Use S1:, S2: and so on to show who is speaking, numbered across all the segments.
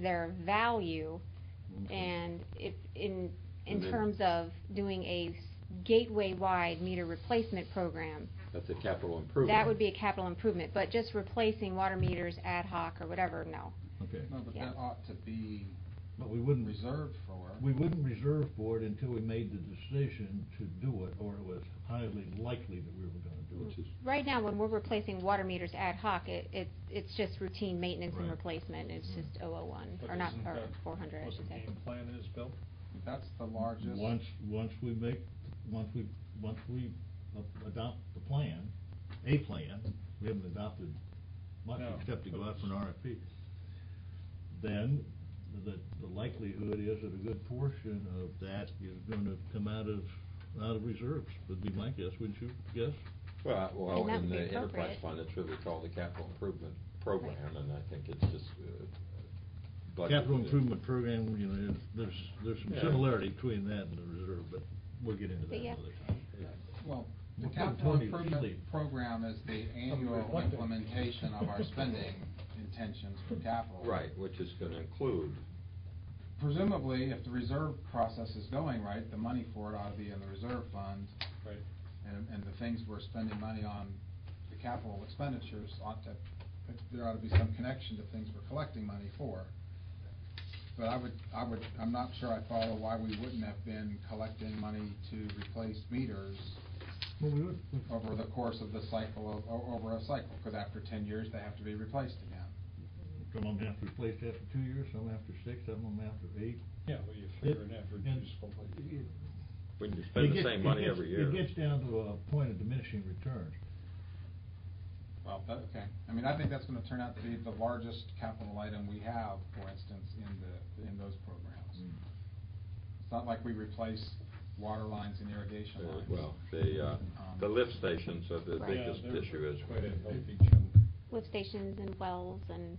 S1: their value
S2: Mm-hmm.
S3: Okay.
S1: and if, in, in
S3: And then-
S1: terms of doing a gateway-wide meter replacement program,
S3: That's a capital improvement.
S1: that would be a capital improvement, but just replacing water meters ad hoc or whatever, no.
S4: Okay.
S5: No, but
S1: Yeah.
S5: that ought to be
S4: But we wouldn't
S5: reserved for.
S4: We wouldn't reserve for it until we made the decision to do it, or it was highly likely that we were gonna do
S3: Which
S4: it.
S3: is,
S1: Right now, when we're replacing water meters ad hoc, it, it, it's just routine maintenance and
S4: Right.
S1: replacement, it's just 001,
S2: Mm-hmm. But
S1: or not,
S2: isn't
S1: or
S2: that
S1: 400, I
S2: What the
S1: should say.
S2: game plan is, Bill?
S5: That's the largest.
S4: Once, once we make, once we, once we a- adopt the plan, a plan, we haven't adopted much
S2: No.
S4: except to go out for an RFP, then the, the likelihood is that a good portion of that is gonna come out of, out of reserves, would be my guess, wouldn't you guess?
S3: well, I- well,
S1: And that would
S3: in
S1: be
S3: the enterprise
S1: appropriate.
S3: fund, it's really called the capital improvement program, and I think it's just, uh, budgeted.
S4: Capital improvement program, you know, there's, there's some
S3: Yeah.
S4: similarity between that and the reserve, but we'll get into that
S1: But yeah.
S4: another time.
S5: Well, the
S4: Well,
S5: capital
S4: Tony,
S5: improvement
S4: really-
S5: program is the annual
S2: reflective.
S5: implementation of our spending intentions for capital.
S3: Right, which is gonna include,
S5: Presumably, if the reserve process is going right, the money for it ought to be in the reserve fund,
S2: Right.
S5: and, and the things we're spending money on, the capital expenditures ought to, there ought to be some connection to things we're collecting money for. But I would, I would, I'm not sure I follow why we wouldn't have been collecting money to replace meters
S4: Well, we would.
S5: over the course of the cycle, of- o- over a cycle, because after ten years, they have to be replaced again.
S4: Some of them have to replace after two years, some after six, some of them after eight.
S2: Yeah, well, you figure an average
S4: And-
S2: useful life.
S3: we can spend
S4: It
S3: the
S4: gets-
S3: same
S4: it
S3: money
S4: gets-
S3: every year.
S4: It gets down to a point of diminishing returns.
S5: Well, that, okay. I mean, I think that's gonna turn out to be the largest capital item we have, for instance, in the, in those programs. It's not like we replace water lines and irrigation
S3: Uh,
S5: lines. Um,
S3: Well, the, uh, the lift stations are the
S1: Right.
S2: Yeah,
S3: biggest
S2: they're
S3: issue is.
S2: Quite a healthy chunk.
S1: Lift stations and wells and,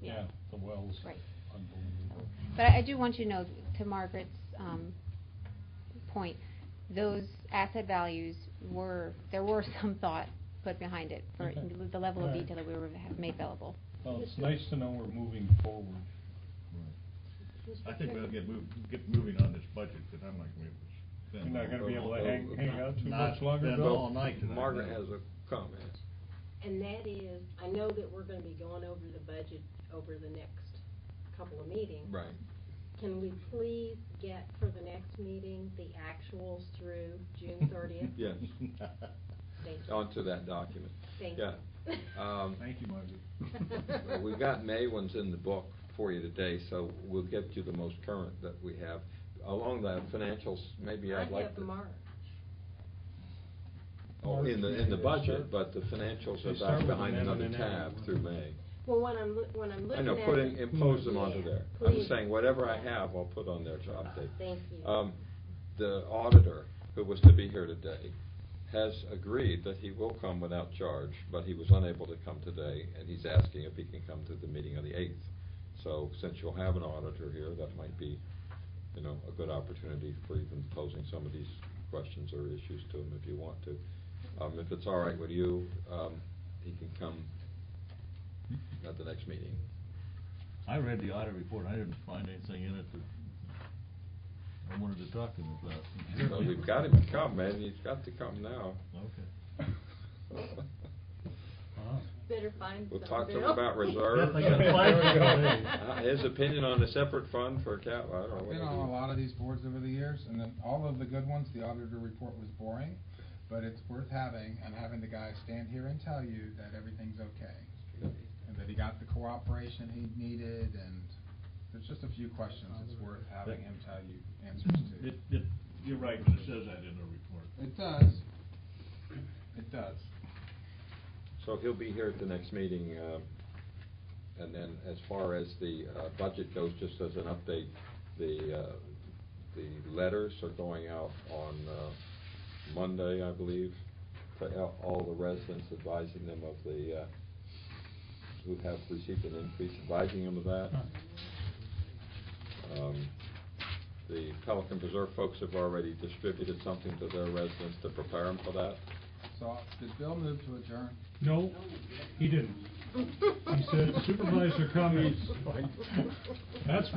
S1: yeah.
S2: Yeah, the wells.
S1: Right.
S2: Unbelievable.
S1: But I I do want you to know, to Margaret's um, point, those asset values were, there were some thought put behind it for
S2: Okay.
S1: the level of
S2: All right.
S1: detail that we were, have made available.
S2: Well, it's nice to know we're moving forward.
S4: I think we'll get move, get moving on this budget, because I'm like, we was.
S2: You're not gonna be able to
S3: Well,
S2: hang,
S3: well,
S2: hang out too
S4: not
S2: much longer,
S4: then
S2: Bill?
S4: all night tonight,
S3: Margaret
S4: no.
S3: has a comment.
S6: And that is, I know that we're gonna be going over the budget over the next couple of meetings.
S3: Right.
S6: Can we please get for the next meeting the actuals through June thirtieth?
S3: Yes,
S6: Thank you.
S3: onto that document.
S6: Thank
S3: yeah.
S6: you.
S3: Um,
S4: Thank you, Margaret.
S3: Well, We've got May ones in the book for you today, so we'll get you the most current that we have. Along the financials, maybe I'd
S6: I
S3: like
S6: have
S3: to...
S6: March.
S3: Oh, in the, in the
S2: March, yeah,
S3: budget, but the financials
S2: They
S3: are back
S2: start with
S3: behind
S2: an M
S3: another
S2: and an M.
S3: tab through May.
S6: Well, when I'm, loo- when I'm
S3: I
S6: looking
S3: know,
S6: at.
S3: put in,
S6: it-
S3: impose them onto
S6: Yeah,
S3: there. I'm
S6: please. Ah,
S3: just saying, whatever I have, I'll put on there to update.
S6: Thank you.
S3: Um, The auditor, who was to be here today, has agreed that he will come without charge, but he was unable to come today, and he's asking if he can come to the meeting on the 8th. So since you'll have an auditor here, that might be, you know, a good opportunity for even posing some of these questions or issues to him if you want to. Um, If it's all right with you, um, he can come at the next meeting.
S4: I read the audit report, I didn't find anything in it that I wanted to talk to him about.
S3: But we've got him to come, man, he's got to come now.
S4: Okay.
S6: Better find
S3: We'll
S6: some,
S3: talk to him
S6: Bill.
S3: about reserves.
S4: Definitely gonna
S3: Uh,
S4: fight.
S3: His opinion on a separate fund for cap, I don't know.
S5: I've
S3: what
S5: been
S3: to
S5: on
S3: do.
S5: a lot of these boards over the years, and then all of the good ones, the auditor report was boring, but it's worth having, and having the guy stand here and tell you that everything's okay. And that he got the cooperation he needed, and there's just a few questions it's worth having him tell you answers to.
S4: It, it, you're right, when it says that in the report.
S5: It does. It does.
S3: So he'll be here at the next meeting, um, and then as far as the uh, budget goes, just as an update, the, uh, the letters are going out on uh, Monday, I believe, to all- all the residents advising them of the, uh, who have received an increase, advising them of that. Um, The Pelican Preserve folks have already distributed something to their residents to prepare them for that.
S5: So, did Bill move to adjourn?
S2: No, he didn't. He said supervisor comments. That's